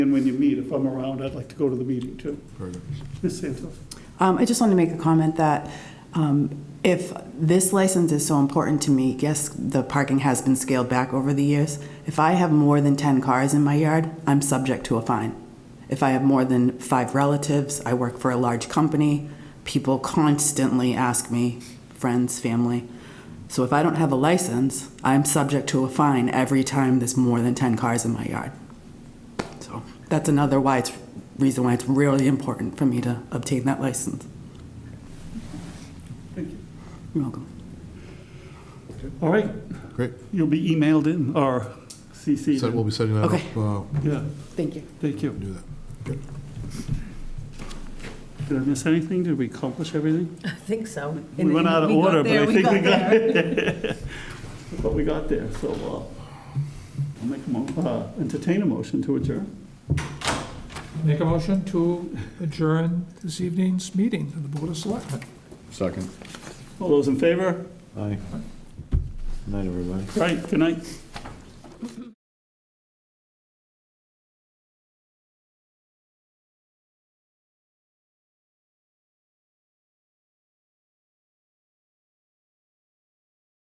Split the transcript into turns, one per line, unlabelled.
And when you meet, if I'm around, I'd like to go to the meeting too. Ms. Santos?
Um, I just wanted to make a comment that um, if this license is so important to me, yes, the parking has been scaled back over the years. If I have more than 10 cars in my yard, I'm subject to a fine. If I have more than five relatives, I work for a large company, people constantly ask me, friends, family. So if I don't have a license, I'm subject to a fine every time there's more than 10 cars in my yard. So that's another why it's, reason why it's really important for me to obtain that license.
Thank you.
You're welcome.
All right,
Great.
you'll be emailed in or
So we'll
CC'd.
be setting that up.
Okay.
uh,
Yeah,
Thank you.
thank you.
Do that.
Did I miss anything? Did we accomplish everything?
I think so.
We went out of
got
order, but
there,
I think we
there.
got it. But we got there, so uh, I'll make a mo, uh, entertain a motion to adjourn.
Make a motion to adjourn this evening's meeting of the Board of Selectmen.
Second.
All those in favor?
Aye. Night, everybody.
Right, good night.